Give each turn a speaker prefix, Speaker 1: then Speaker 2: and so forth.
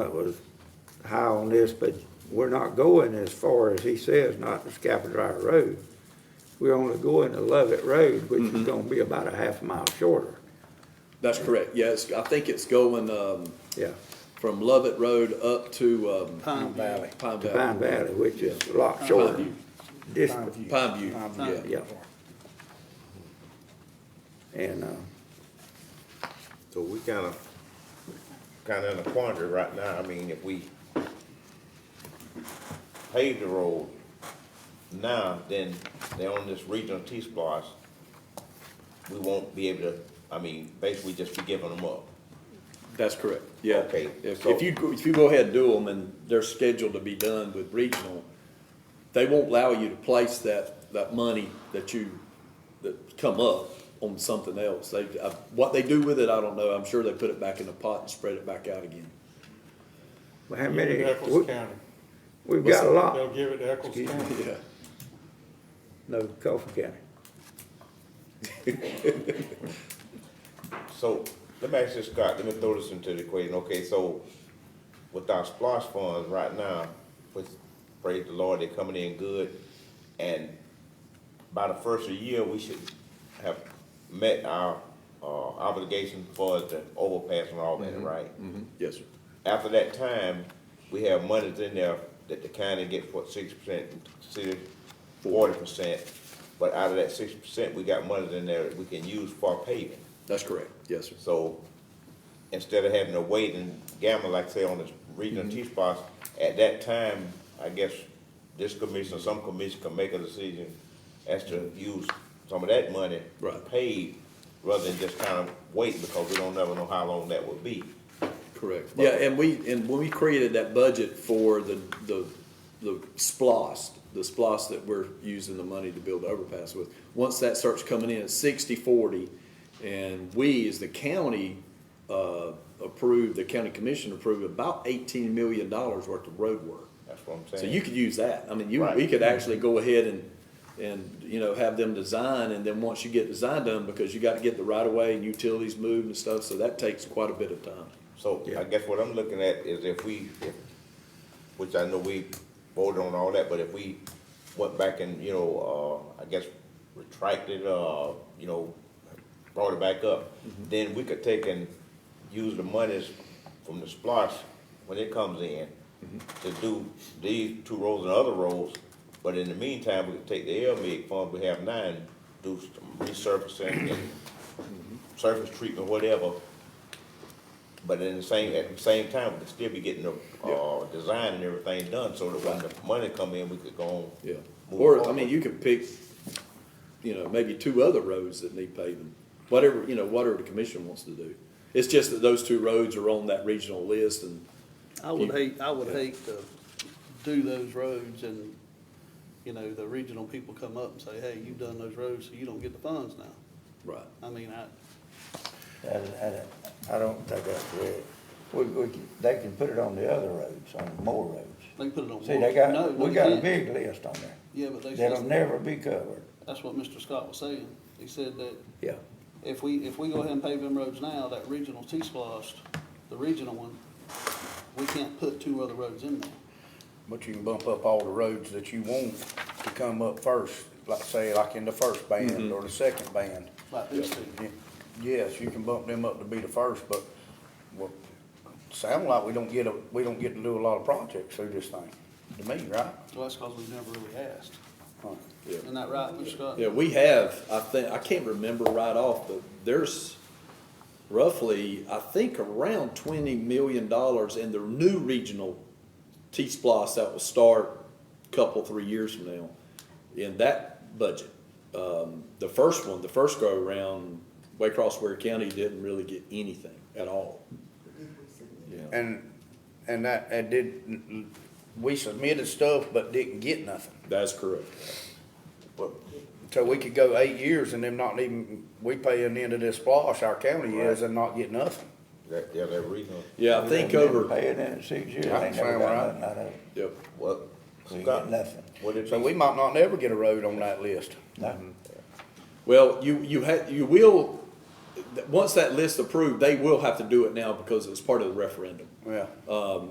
Speaker 1: that was high on this, but we're not going as far as he says, not to Scapa Dry Road. We're only going to Lovett Road, which is gonna be about a half mile shorter,
Speaker 2: That's correct, yes, I think it's going, um,
Speaker 1: yeah.
Speaker 2: from Lovett Road up to, um.
Speaker 3: Pine Valley.
Speaker 2: Pine
Speaker 1: Pine
Speaker 2: Valley.
Speaker 1: Valley, which is a lot shorter.
Speaker 2: View.
Speaker 1: This,
Speaker 2: Pine View,
Speaker 3: Pine
Speaker 2: yeah.
Speaker 1: yeah. And, uh,
Speaker 4: So we kind of, kind of in a quandary right now. I mean, if we pave the road now, then they're on this regional T-Splosh. We won't be able to, I mean, basically just be giving them up.
Speaker 2: That's correct, yeah.
Speaker 4: Okay,
Speaker 2: If,
Speaker 4: so-
Speaker 2: if you, go- if you go ahead and do them and they're scheduled to be done with regional, they won't allow you to place that, that money that you, that come up on something else. They, I- what they do with it, I don't know. I'm sure they put it back in the pot and spread it back out again.
Speaker 1: well, how many,
Speaker 5: Eccles
Speaker 1: we-
Speaker 5: County.
Speaker 1: we've got a
Speaker 4: uh,
Speaker 5: They'll
Speaker 1: lot,
Speaker 5: give it to Eccles County.
Speaker 2: Yeah.
Speaker 1: no, Coffee County.
Speaker 4: So let me ask you, Scott, let me throw this into the equation. Okay, so with our splash funds right now, which, praise the Lord, they're coming in good. And by the first of the year, we should have met our, uh, obligation for the overpass and all that, right?
Speaker 2: Yes, sir.
Speaker 4: After that time, we have monies in there that the county get for six percent, city forty percent. But out of that six percent, we got monies in there that we can use for paving.
Speaker 2: That's correct. Yes, sir.
Speaker 4: So instead of having to wait and gamble, like say on the regional
Speaker 2: Mm-hmm.
Speaker 4: T spots, at that time, I guess this commission, or some commission can make a decision as to use some of that money
Speaker 2: Mm-hmm. Right.
Speaker 4: paid rather than just kind of wait because we don't never know how long that would be.
Speaker 2: Correct. Yeah, and we, and when we created that budget for the, the, the splost, the splost that we're using the money to build the overpass with, once that starts coming in, it's sixty, forty, and we, as the county, uh, approved, the county commission approved about eighteen million dollars worth of road work.
Speaker 4: That's what I'm saying.
Speaker 2: So you could use that. I mean, you,
Speaker 4: Right.
Speaker 2: we could actually go ahead and, and, you know, have them design, and then once you get design done, because you got to get the right of way and utilities moved and stuff, so that takes quite a bit of time.
Speaker 4: So
Speaker 1: Yeah.
Speaker 4: I guess what I'm looking at is if we, if- which I know we voted on all that, but if we went back and, you know, uh, I guess retracted, uh, you know, brought it back up, then we could take and use the monies from the splosh when it comes in to do these two roads and other roads, but in the meantime, we could take the L M fund we have now and do some resurfacing and surface treatment, whatever, but in the same, at the same time, we could still be getting the, uh, design and everything done, so that when the money come in, we could go on.
Speaker 2: Yeah,
Speaker 4: move
Speaker 2: or, I
Speaker 4: forward.
Speaker 2: mean, you could pick, you know, maybe two other roads that need paving, whatever, you know, whatever the commission wants to do. It's just that those two roads are on that regional list and,
Speaker 3: I would hate, I would hate to do those roads and, you know, the regional people come up and say, hey, you've done those roads, so you don't get the funds now.
Speaker 2: right,
Speaker 3: I mean, I,
Speaker 1: I, I, I don't think that's fair. We, we, can- they can put it on the other roads, on more roads.
Speaker 3: they can put it on.
Speaker 1: See, they
Speaker 3: no,
Speaker 1: got,
Speaker 3: no,
Speaker 1: we
Speaker 3: you
Speaker 1: got a
Speaker 3: can't.
Speaker 1: big list on there
Speaker 3: Yeah, but they,
Speaker 1: that'll
Speaker 3: that's,
Speaker 1: never be covered.
Speaker 3: that's what Mr. Scott was saying. He said that
Speaker 1: Yeah.
Speaker 3: if we, if we go ahead and pave them roads now, that regional T-Splosh, the regional one, we can't put two other roads in there.
Speaker 6: But you can bump up all the roads that you want to come up first, like say, like in the first band or the second band.
Speaker 3: Like these two.
Speaker 6: Y- Yes, you can bump them up to be the first, but, well, sound like we don't get a, we don't get to do a lot of projects through this thing, to me, right?
Speaker 3: Well, that's because we've never really asked.
Speaker 6: Huh.
Speaker 2: yeah.
Speaker 3: Isn't that right, Mr. Scott?
Speaker 2: Yeah, we have, I think, I can't remember right off, but there's roughly, I think, around twenty million dollars in the new regional T-Splosh that will start a couple, three years from now in that budget. Um, the first one, the first go around, Waycross Ware County didn't really get anything at all. Yeah,
Speaker 6: And, and that, and did, we submitted stuff but didn't get nothing.
Speaker 2: that's correct.
Speaker 4: But
Speaker 6: So we could go eight years and them not even, we paying into this splosh, our county is, and not get nothing.
Speaker 4: That, yeah, that reason,
Speaker 2: Yeah, I think over,
Speaker 1: Pay it in six years,
Speaker 6: Yeah,
Speaker 1: they never
Speaker 6: sound
Speaker 1: got
Speaker 6: right.
Speaker 1: nothing out of it.
Speaker 2: yep.
Speaker 4: what,
Speaker 1: We ain't
Speaker 4: Scott,
Speaker 1: got nothing.
Speaker 4: what did
Speaker 6: So we
Speaker 4: you,
Speaker 6: might not never get a road on that list.
Speaker 1: Nothing.
Speaker 2: Well, you, you had, you will, th- once that list approved, they will have to do it now because it was part of the referendum.
Speaker 6: Yeah.
Speaker 2: Um,